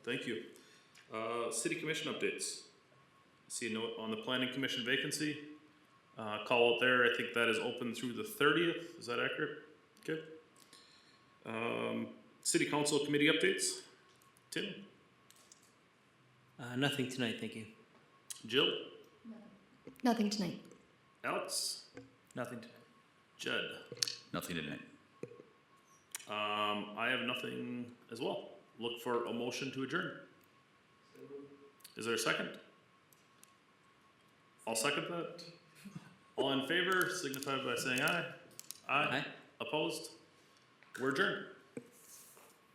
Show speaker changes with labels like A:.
A: Thank you. Uh, city commission updates. See a note on the planning commission vacancy. Uh, call out there, I think that is open through the thirtieth, is that accurate? Okay. Um, city council committee updates. Tim,
B: Uh, nothing tonight, thank you.
A: Jill,
C: Nothing tonight.
A: Alex,
B: Nothing tonight.
A: Judd.
D: Nothing tonight.
A: Um, I have nothing as well. Look for a motion to adjourn. Is there a second? I'll second that. All in favor, signify by saying aye. Aye.
B: Aye.
A: Opposed? We're adjourned.